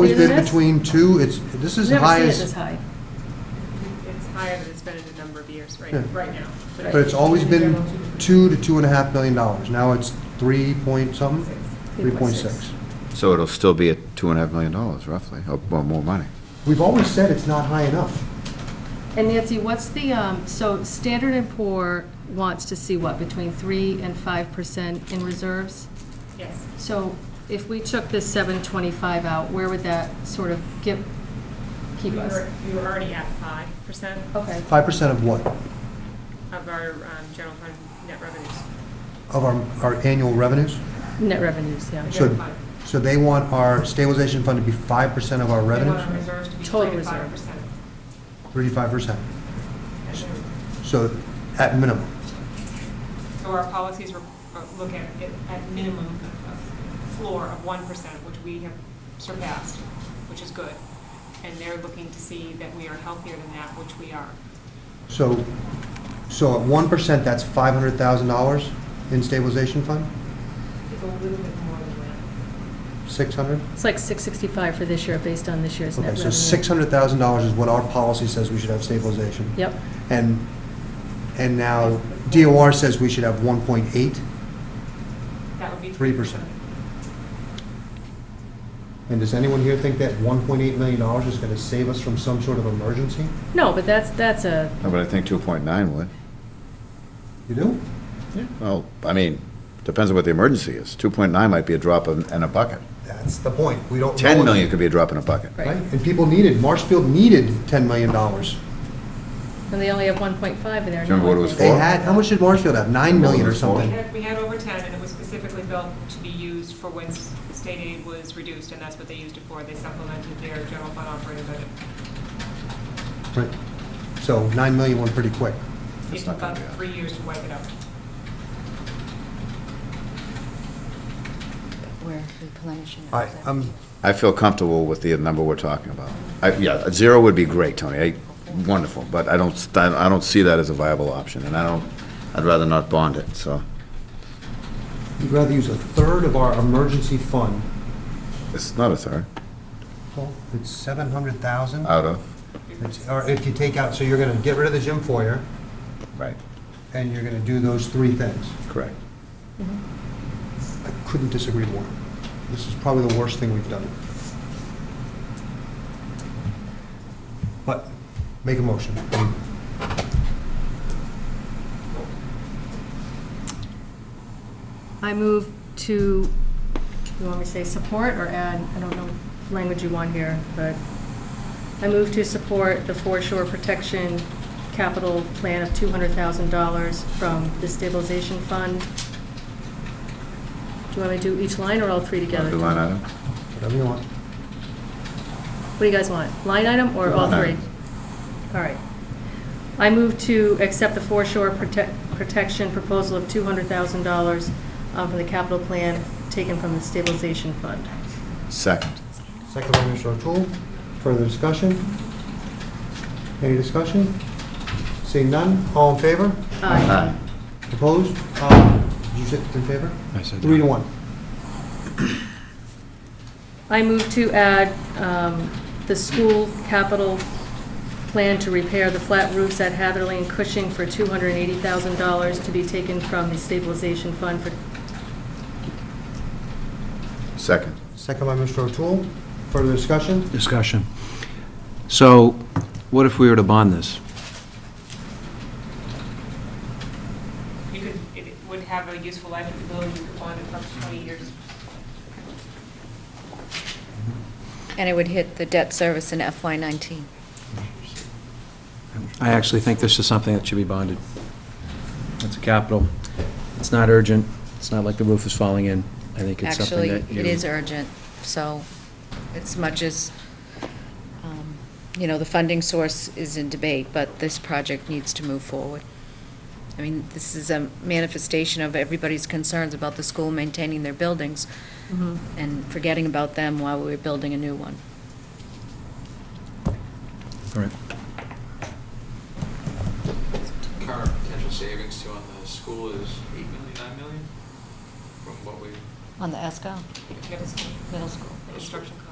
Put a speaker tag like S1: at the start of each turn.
S1: Always
S2: Isn't
S1: been
S2: this-
S1: between two, it's, this is
S2: Never seen it
S1: highest,
S2: this high.
S3: It's higher than it's been in a number of years, right,
S1: Yeah.
S3: right now.
S1: but it's always been two to two and a half million dollars. Now it's three point something, three point
S2: 3.6.
S1: six.
S4: So it'll still be at two and a half million dollars roughly, or or more money.
S1: We've always said it's not high enough.
S2: And Nancy, what's the, um, so Standard and Poor wants to see what, between 3 and 5% in reserves?
S3: Yes.
S2: So if we took this 725 out, where would that sort of get,
S3: We
S2: keep us?
S3: were, we were already at five percent
S2: Okay,
S1: Five percent of what?
S3: of our um, general fund net revenues.
S1: Of our, our annual revenues?
S2: net revenues, yeah.
S1: So,
S3: Yeah, five.
S1: so they want our stabilization fund to be five percent of our
S3: We want
S1: revenues?
S3: our reserves to be
S2: Total
S3: twenty-five percent.
S1: Thirty-five percent, so at minimum.
S3: So our policies were- uh, look at, it at minimum, a floor of one percent, which we have surpassed, which is good. And they're looking to see that we are healthier than that, which we are.
S1: So, so at one percent, that's five hundred thousand dollars in stabilization fund?
S3: It's a little bit more than that.
S1: Six hundred?
S2: It's like 665 for this year, based on this year's net
S1: Okay, so
S2: revenue.
S1: six hundred thousand dollars is what our policy says we should have stabilization.
S2: Yep,
S1: And, and now DOR says we should have one point eight,
S3: That would be.
S1: three percent. And does anyone here think that one point eight million dollars is gonna save us from some sort of emergency?
S2: no, but that's, that's a,
S4: No, But I think two point nine would.
S1: You do?
S4: Well, I mean, depends on what the emergency is. Two point nine might be a drop in in a bucket.
S1: That's the point. We don't. know
S4: Ten
S1: it.
S4: million could be a drop in a bucket.
S1: Right?
S2: right,
S1: And people needed, Marshfield needed ten million dollars.
S2: and they only have 1.5 in there.
S4: Do you remember what it was
S1: They
S4: for?
S1: had, how much did Marshfield have? Nine million or
S4: More than four.
S3: We
S1: something?
S3: had, we had over 10, and it was specifically built to be used for when s- state aid was reduced, and that's what they used it for. They supplemented their general fund operating budget.
S1: Right. So nine million went pretty quick.
S3: It
S4: It's
S3: took
S4: not gonna
S3: about
S4: be that.
S3: three years to wipe it out.
S5: We're replenishing.
S1: All right, um,
S4: I feel comfortable with the number we're talking about. I, yeah, a zero would be great, Tony, I, wonderful, but I don't, st- I don't see that as a viable option, and I don't, I'd rather not bond it, so.
S1: we'd rather use a third of our emergency fund.
S4: It's not a third,
S1: Well, it's seven hundred thousand.
S4: out of,
S1: Or if you take out, so you're gonna get rid of the gym foyer,
S4: right,
S1: and you're gonna do those three things.
S4: correct.
S1: I couldn't disagree more. This is probably the worst thing we've done. But, make a motion.
S2: I move to, you want me to say support or add, I don't know what language you want here, but I move to support the foreshore protection capital plan of $200,000 from the stabilization fund. Do you want me to do each line or all three together?
S4: Do line item?
S1: Whatever you want.
S2: What do you guys want? Line item or all
S4: Line
S2: three?
S4: item.
S2: All right. I move to accept the foreshore prote- protection proposal of $200,000 um, from the capital plan taken from the stabilization fund.
S4: Second.
S1: Second by Mr. O'Toole. Further discussion? Any discussion? Seeing none, all in favor?
S2: Aye.
S1: Opposed? Uh, Did you say in favor?
S6: I said
S1: Three to
S6: aye.
S1: one.
S2: I move to add um, the school capital plan to repair the flat roofs at Hatherley and Cushing for $280,000 to be taken from the stabilization fund for,
S4: Second.
S1: Second by Mr. O'Toole. Further discussion?
S6: Discussion. So what if we were to bond this?
S3: You could, it it would have a useful life of the building, you could bond it up to 20 years.
S5: And it would hit the debt service in FY '19.
S6: I actually think this is something that should be bonded. It's a capital. It's not urgent. It's not like the roof is falling in. I think it's something
S5: Actually,
S6: that you...
S5: it is urgent, so as much as, um, you know, the funding source is in debate, but this project needs to move forward. I mean, this is a manifestation of everybody's concerns about the school maintaining their buildings and forgetting about them while we were building a new one.
S6: All right.
S7: Current potential savings too on the school is eight million, nine million, from what we,
S5: On the ESCO,
S3: You could have a school,
S5: middle school.
S3: an instruction cost.